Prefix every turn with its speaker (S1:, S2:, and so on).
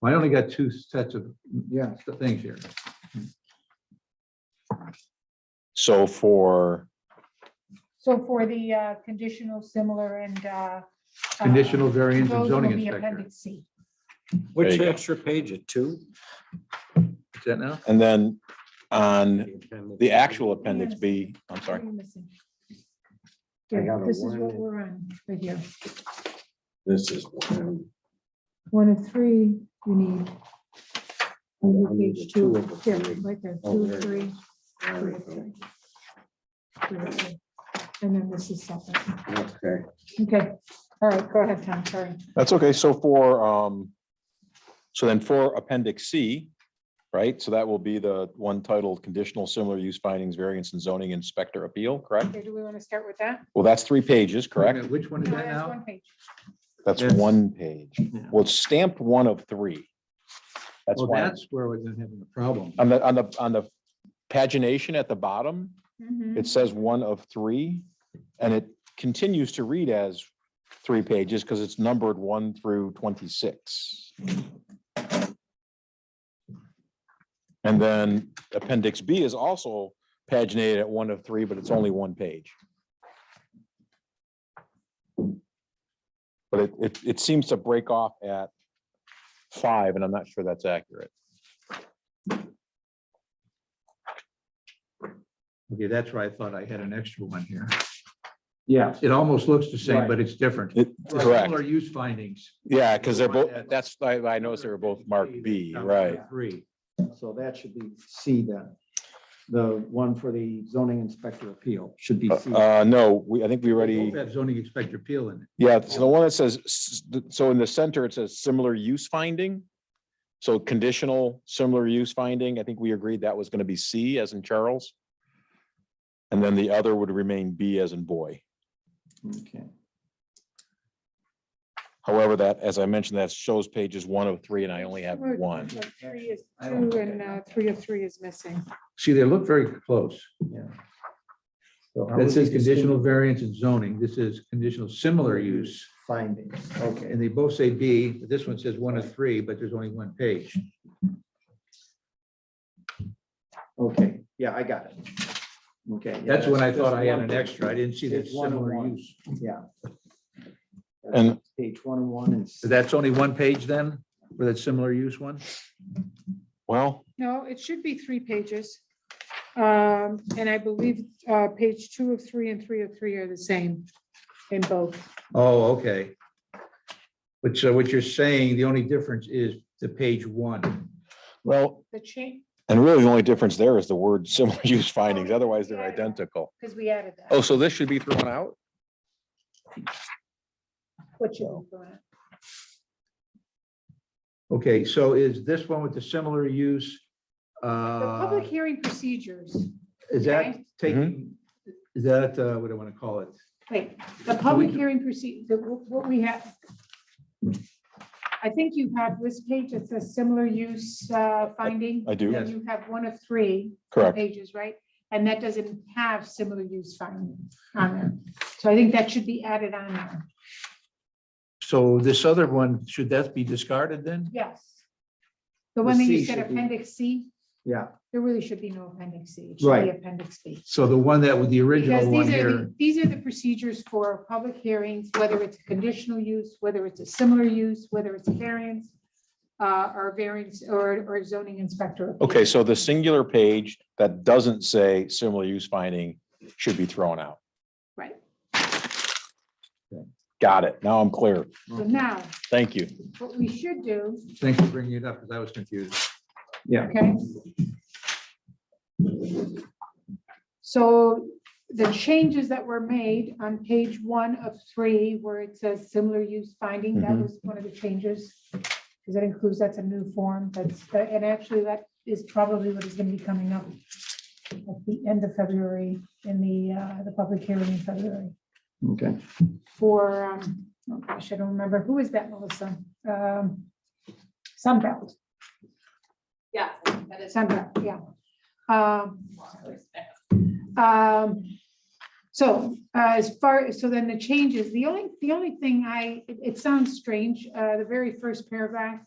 S1: Well, I only got two sets of
S2: Yeah,
S1: things here.
S3: So for,
S4: So for the uh, conditional, similar and. uh,
S1: Conditional
S4: uh,
S1: variance and
S4: those
S1: zoning
S4: will be
S1: inspector.
S4: Appendix C.
S3: There
S5: Which
S3: you go.
S5: extra page, a two?
S1: Is that now?
S3: and then on the actual appendix B, I'm
S4: What
S3: sorry,
S4: are you missing?
S5: I
S4: Here,
S5: got a
S4: This is
S5: one.
S4: what we're on, right here.
S5: This is. one.
S4: One of three you need.
S5: Oh, I
S4: On
S5: need the
S4: page
S5: two
S4: two,
S5: of the
S4: here,
S5: three.
S4: right there,
S5: Oh,
S4: two,
S5: there it
S4: three,
S5: There
S4: two,
S5: we
S4: three.
S5: go.
S4: two, three. And then this is separate.
S5: Okay.
S4: Okay, all right, go ahead, Tom, sorry.
S3: that's okay, so for, um, so then for appendix C, right, so that will be the one titled conditional similar use findings variance and zoning inspector appeal, correct?
S4: Okay, do we want to start with that?
S3: Well, that's three
S1: Wait
S3: pages,
S1: a
S3: correct?
S1: minute, Which one is
S4: No,
S1: that
S4: that's
S1: now?
S4: one page.
S3: That's
S1: Yes.
S3: one page.
S1: Yeah.
S3: Well, it's stamped one of three. That's
S1: Well,
S3: why,
S1: Oh, that's where we're then having a problem.
S3: on the, on the, on the pagination at the bottom,
S4: Mhm.
S3: it says one of three, and it continues to read as three pages because it's numbered one through twenty-six. And then appendix B is also paginated at one of three, but it's only one page. But it, it, it seems to break off at five, and I'm not sure that's accurate.
S1: Okay, that's where I thought I had an extra one here.
S2: yeah,
S1: It almost looks the same,
S2: Right.
S1: but it's different.
S3: It- Correct.
S1: Similar use findings.
S3: Yeah, because they're
S1: The one
S3: both,
S1: that-
S3: that's, I, I noticed they were both marked B,
S1: Down to
S3: right?
S1: Three.
S2: so that should be C then. The one for the zoning inspector appeal should be C.
S3: Uh, no, we, I think we already,
S1: Both have zoning inspector appeal in it.
S3: yeah, so the one that says, s- so in the center, it says similar use finding. So conditional, similar use finding, I think we agreed that was gonna be C as in Charles. And then the other would remain B as in boy.
S2: Okay.
S3: However, that, as I mentioned, that shows pages one of three and I only have
S4: Sure,
S3: one.
S4: two of Three is
S1: I don't
S4: two
S1: think I
S4: and
S1: got
S4: uh, three of three is missing.
S1: See, they look very close.
S2: So how would
S1: This is
S2: we distinguish
S1: conditional variance and zoning. This is conditional similar use.
S2: Findings, okay.
S1: And they both say B, but this one says one of three, but there's only one page.
S2: Okay, yeah, I got it. Okay. yeah,
S1: That's when I
S2: that's
S1: thought I had
S2: one
S1: an
S2: page.
S1: extra. I didn't see that
S2: It's one and
S1: similar
S2: one.
S1: use.
S2: Yeah.
S3: And-
S2: Page one and one and.
S1: So That's only one page then, for that similar use one?
S3: Well,
S4: No, it should be three pages. Um, And I believe uh, page two of three and three of three are the same in both.
S1: Oh, okay. But so what you're saying, the only difference is the page one.
S3: well,
S4: The change,
S3: and really the only difference there is the word similar use findings, otherwise they're identical.
S4: because we added that.
S3: Oh, so this should be thrown out?
S4: What you were doing.
S1: Okay, so is this one with the similar use?
S4: The
S1: uh,
S4: public hearing procedures,
S1: Is that
S4: okay.
S1: taking,
S3: Mm-hmm.
S1: is that, uh, what do I want to call it?
S4: wait, the public hearing proceed, the- what we have. I think you have this page, it's a similar use uh, finding.
S3: I do,
S1: Yes.
S4: And you have one of three.
S3: correct.
S4: pages, right? And that doesn't have similar use finding on there. So I think that should be added on there.
S1: So this other one, should that be discarded then?
S4: Yes. The one that
S2: The
S4: you
S2: C
S4: said
S2: should be-
S4: appendix C,
S2: Yeah,
S4: there really should be no appendix C. It should be
S2: Right.
S4: appendix B.
S1: So the one that with the
S4: Because
S1: original one
S4: these are, the-
S1: here,
S4: these are the procedures for public hearings, whether it's a conditional use, whether it's a similar use, whether it's a variance, uh, or variance, or, or zoning inspector.
S3: Okay, so the singular page that doesn't say similar use finding should be thrown out.
S4: Right.
S3: Got it. Now I'm clear.
S4: So now,
S3: Thank you.
S4: what we should do,
S1: thanks for bringing it up because I was confused.
S2: yeah.
S4: Okay. So the changes that were made on page one of three, where it says similar use finding, that
S3: Mhm.
S4: was one of the changes. Because that includes, that's a new form, that's, and actually that is probably what is going to be coming up at the end of February in the, uh, the public hearing in February
S2: Okay.
S4: for, um, oh gosh, I don't remember, who is that, Melissa? Um, Sunbelt.
S6: Yeah, that is.
S4: Sandra, yeah. Um, um, So uh, as far, so then the changes, the only, the only thing I, it- it sounds strange, uh, the very first paragraph